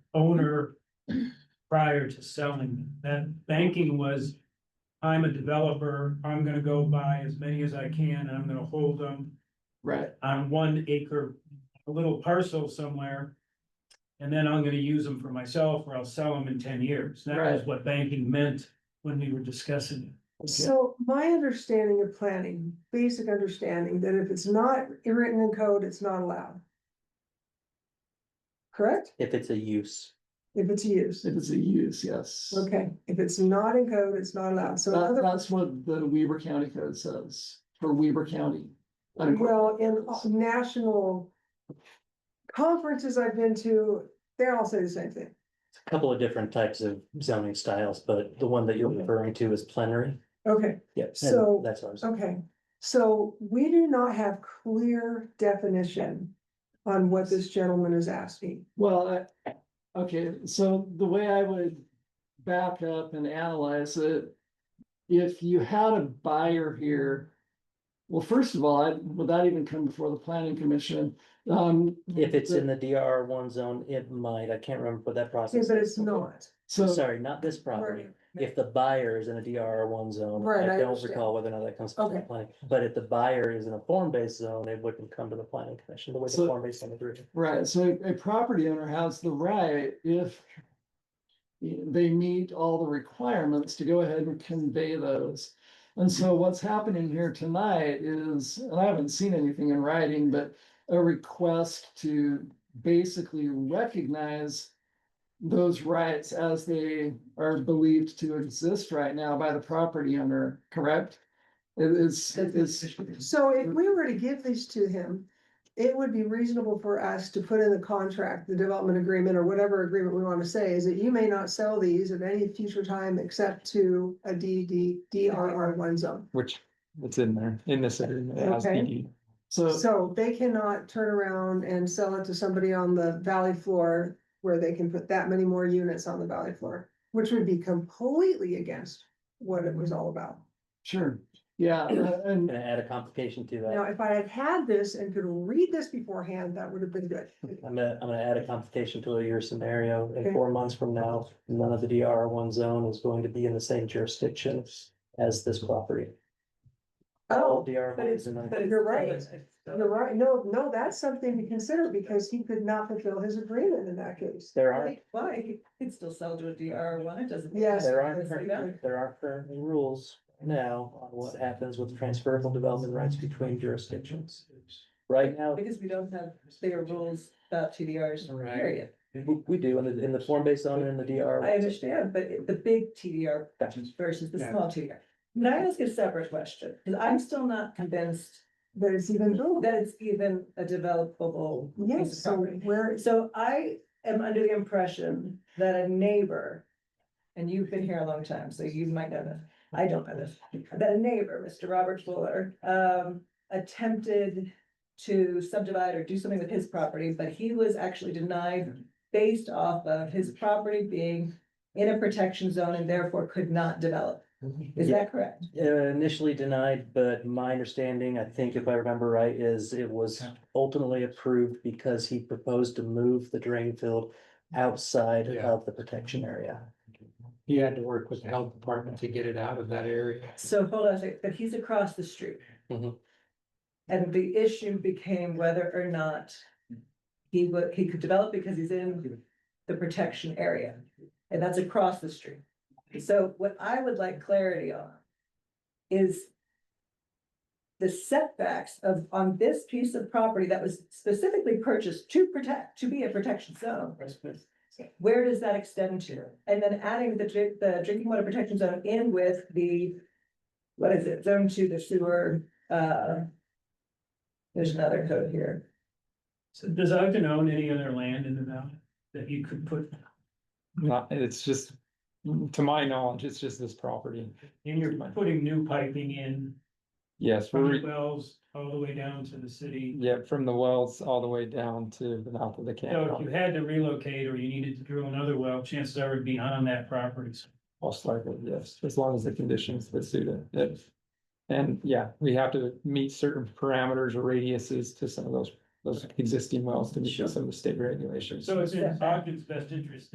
owner prior to selling. That banking was, I'm a developer, I'm gonna go buy as many as I can, and I'm gonna hold them Right, on one acre, a little parcel somewhere. And then I'm gonna use them for myself, or I'll sell them in ten years. That was Right. what banking meant when we were discussing it. So my understanding of planning, basic understanding, that if it's not written in code, it's not allowed. Correct? if it's a use. If it's used, if it's a use, yes. okay, if it's not in code, it's not allowed, so That, another, that's what the Weaver County Code says, for Weaver County. well, in national. Conferences I've been to, they all say the same thing, It's a couple of different types of zoning styles, but the one that you're referring to is plenary. okay, Yes. So- um, That's what I was, okay. So we do not have clear definition on what this gentleman is asking. Well, I, okay, so the way I would back up and analyze it. If you had a buyer here. Well, first of all, I, would that even come before the planning commission? Um. if it's in the DRR one zone, it might, I can't remember what that Okay, process. but is. it's not. So, Sorry, not this property. Right. If the buyer is in a DRR one zone, Right, I I don't understand. recall whether or not that comes to the Okay. planning. But if the buyer is in a form-based zone, it wouldn't come to the planning commission, the way So- the form-based zone is written. right, so a property owner has the right if. They meet all the requirements to go ahead and convey those. And so what's happening here tonight is, and I haven't seen anything in writing, but a request to basically recognize. Those rights as they are believed to exist right now by the property owner, correct? It is, it is, So if we were to give these to him, it would be reasonable for us to put in the contract, the development agreement or whatever agreement we want to say is that you may not sell these at any future time except to a DD, DRR one zone. Which it's in there, in this agreement. it has Okay. DD. so. So they cannot turn around and sell it to somebody on the valley floor where they can put that many more units on the valley floor, which would be completely against what it was all about. Sure, yeah, uh, and, Gonna add a complication to Now, that. if I had had this and could read this beforehand, that would have been good. I'm gonna, I'm gonna add a complication to your scenario. Okay. In four months from now, none of the DRR one zone is going to be in the same jurisdiction as this property. Oh, DRR But it's, ones in but a- it's. You're right. it's- You're right, no, no, that's something to consider because he could not fulfill his agreement in that case. There are, Like, Why? It's still sell to a DR one, it doesn't. Yes. there are, Obviously not. current- there are currently rules now on what happens with transferable development rights between jurisdictions. Right now, Because we don't have clear rules about TDRs, Right. period. we, we do in the, in the form-based zone and in the DRR. I understand, but it- the big TDR Gotcha. versus the Yeah. small TDR. Can I ask a separate question? Because I'm still not convinced That it's even doable. that it's even a developable. piece Yes, of so property. where, So I am under the impression that a neighbor, and you've been here a long time, so you might know this, I don't know this. That a neighbor, Mr. Robert Fuller, um, attempted to subdivide or do something with his property, but he was actually denied based off of his property being in a protection zone and therefore could not develop. Is Yeah. that correct? Uh, initially denied, but my understanding, I think if I remember right, is it was ultimately approved because he proposed to move the drain field outside Yeah. of the protection area. He had to work with the health department to get it out of that area. So hold on a second, but he's across the street. Mhm. And the issue became whether or not he would, he could develop because he's in the protection area, and that's across the street. So what I would like clarity on is the setbacks of, on this piece of property that was specifically purchased to protect, to be a protection zone. Where does that extend to? And then adding the drink, the drinking water protection zone in with the, what is it, zone two, the sewer, uh. There's another code here. So does Ogden own any other land in the valley that you could put Not, it's just, to my knowledge, it's just this property. And you're putting new piping in Yes, from we're, the wells all the way down to the city. yeah, from the wells all the way down to the mouth of the So if you canyon, had to relocate or you needed to drill another well, chances are it'd be on that property. most likely, yes, as long as the conditions would suit it. If- And yeah, we have to meet certain parameters or radiuses to some of those those existing wells to meet some of the state regulations. So it's in Ogden's best interest